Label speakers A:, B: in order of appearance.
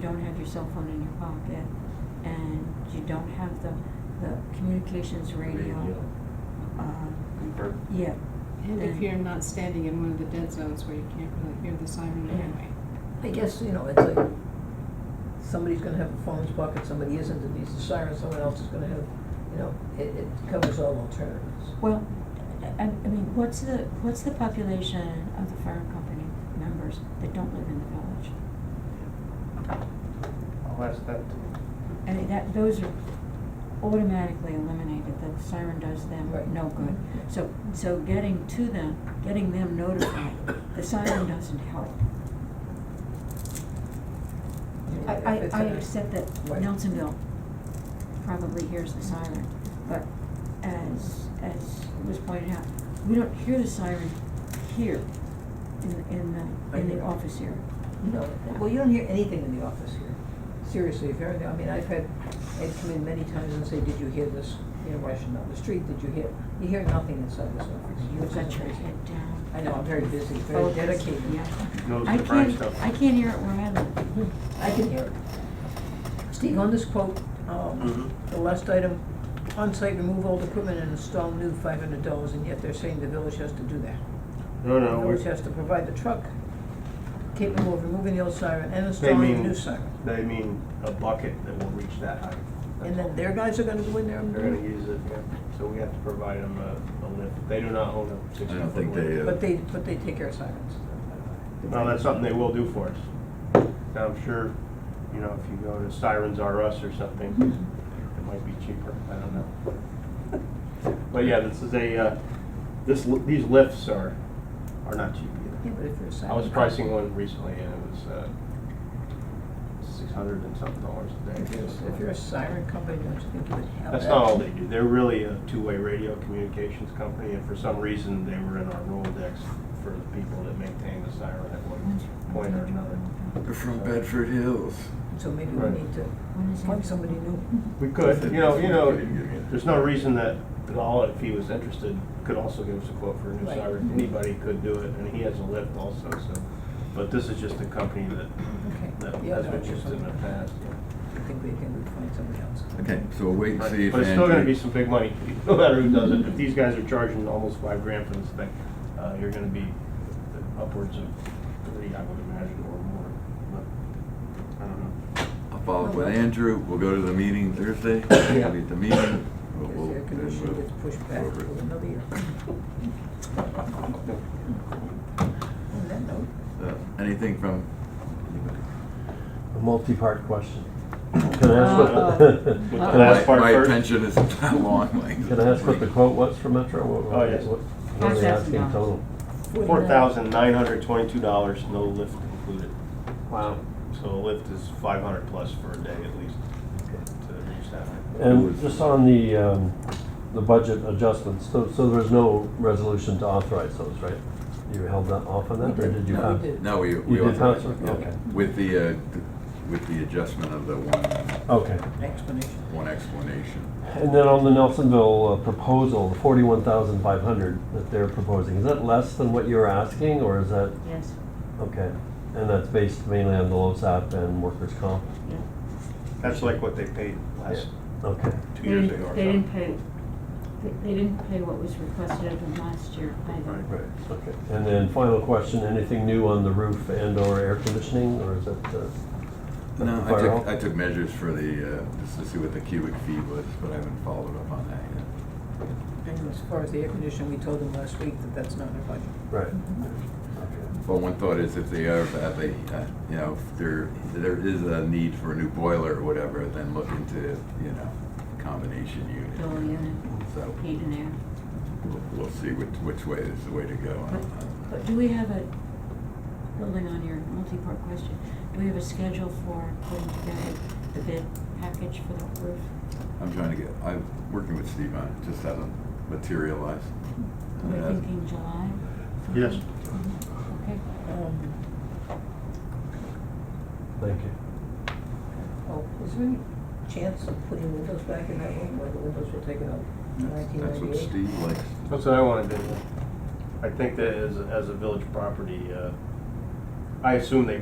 A: don't have your cell phone in your pocket, and you don't have the, the communications radio. uh,
B: Confer-
A: Yeah,
C: And if
A: And-
C: you're not standing in one of the dead zones where you can't really hear the siren
A: Yeah.
C: anyway.
D: I guess, you know, it's like, somebody's gonna have a phone in his pocket, somebody isn't, it needs a siren, someone else is gonna have, you know, it, it covers all alternatives.
A: well, I, I mean, what's the, what's the population of the fire company members that don't live in the village?
B: I'll ask that to,
A: I mean, that, those are automatically eliminated, the siren does
D: Right.
A: them no good. So, so getting to them, getting them notified, the siren doesn't help.
D: You know,
A: I, I,
D: if it's
A: I
D: a-
A: accept that
D: Right.
A: Nelsonville probably hears the siren, but as, as was pointed out, we don't hear the siren here in, in the, in
D: I
A: the
D: know.
A: office here.
D: No, well, you don't hear anything in the office here. Seriously, if everything, I mean, I've had, I'd come in many times and say, did you hear this, you know, rushing down the street, did you hear? You hear nothing inside this office.
A: You've
D: which is
A: got your
D: amazing.
A: head down.
D: I know, I'm very busy, very
A: Focused,
D: dedicated.
A: Yeah.
B: Goes
A: I
B: to Brian
A: can't,
B: stuff.
A: I can't hear it where I live.
D: I can hear it. Steve, on this quote, um,
B: Mhm.
D: the last item, on-site remove old equipment and install new five hundred dollars, and yet they're saying the village has to do that.
B: no,
D: The
B: no,
D: village
B: we-
D: has to provide the truck capable of removing the old siren and
B: they
D: installing the
B: mean,
D: new siren.
B: they mean a bucket that will reach that height.
D: And then their guys are gonna go in there and do
B: They're gonna
D: it?
B: use it, yeah, so we have to provide them a, a lift, they do not own a six
E: I
B: foot
E: don't think they, uh,
D: But they, but they take our sirens.
B: No, that's something they will do for us. Now, I'm sure, you know, if you go to Sirens R Us or something,
D: Hmm.
B: it might be cheaper, I don't know. But yeah, this is a, uh, this, li- these lifts are, are not cheap
D: Yeah,
B: either.
D: but if you're a siren.
B: I was pricing one recently and it was, uh, six hundred and something dollars a
D: If
B: day.
D: you're, if you're a siren company, don't you think you would have that?
B: That's not all they do. They're really a two-way radio communications company, and for some reason, they were in our Rolodex for the people that maintain the siren at one point or another.
A: Oh,
E: They're from Bedford Hills.
D: So maybe we
B: Right.
D: need to
A: When is
D: appoint
A: it?
D: somebody new.
B: We could, you know, you know, there's no reason that at all, if he was interested, could also give us a quote for a new
D: Right. Mm-hmm.
B: siren. Anybody could do it, and he has a lift also, so, but this is just a company that, that
D: Okay. Yeah,
B: has
D: no,
B: been
D: it's just
B: used in the
D: something.
B: past. yeah.
D: I think we can find somebody else.
E: Okay, so we'll wait and
B: But
E: see if
B: it's still gonna be
E: Andrew.
B: some big money, no matter who does it. If these guys are charging almost five grand for this thing, uh, you're gonna be upwards of three, I would imagine, or more. But, I don't know.
E: I'll follow up with Andrew. We'll go to the meeting Thursday.
B: Yeah.
E: We'll be at the meeting. We'll-
D: Because
E: we'll-
D: the air
E: then
D: conditioning
E: we'll
D: gets pushed back
E: go over it.
D: for another year. On that note,
E: So, Uh, Anything from anybody?
F: A multi-part question. Can I ask what, the- can
D: Uh,
B: Uh-oh.
F: I ask
E: My,
B: part
E: my
B: first.
E: attention is not long, like.
F: can I ask what the quote was for Metro? What- what-
B: Oh, yes.
F: what- What are they asking
A: $5,000.
F: total?
B: Four thousand nine hundred twenty-two dollars, no lift included.
F: Wow.
B: So a lift is five hundred plus for a day at least to reach that.
F: And just on the, um, the budget adjustments, so, so there's no resolution to authorize those, right? You held that off on that, or did you
D: No, we
F: have?
D: did.
E: No, we, we
F: You did
E: authorized
F: pass it?
E: it, yeah.
F: Okay.
E: With the, uh, th- with the adjustment of the one,
F: Okay.
D: Explanation.
E: one explanation.
F: And then on the Nelsonville uh, proposal, the forty-one thousand five hundred that they're proposing, is that less than what you were asking, or is that,
A: Yes,
F: okay? And that's based mainly on the LoSAP and workers' comp?
A: yeah.
B: That's like what they paid last,
F: Okay.
B: two
A: They
B: years
A: didn't,
B: ago or
A: they didn't pay,
B: something.
A: they- they didn't pay what was requested of them last year either.
F: Right, okay. And then final question, anything new on the roof and or air conditioning, or is it? uh,
E: No, I
F: fire
E: took,
F: hall?
E: I took measures for the, uh, just to see what the cubic feet was, but I haven't followed up on that yet.
D: And as far as the air conditioning, we told them last week that that's not in our budget.
F: Right. Okay.
E: Well, one thought is if they are, if they, uh, you know, if there, there is a need for a new boiler or whatever, then look into, you know, combination
A: Bill
E: unit.
A: unit,
E: So
A: heat and air.
E: we'll, we'll see which, which way is the way to go.
A: But, but do we have a, building on your multi-part question, do we have a schedule for putting together the bid package for the roof?
E: I'm trying to get, I'm working with Steve on it, just hasn't materialized. And
A: We're
E: that's-
A: thinking July?
B: Yes.
A: Okay.
D: Um,
F: Thank you.
D: oh, is there any chance of putting windows back in that room, where the windows were taken out in
E: That's,
D: nineteen
E: that's what
D: ninety-eight?
E: Steve likes.
B: That's what I wanted to do. I think that as, as a village property, uh, I assume they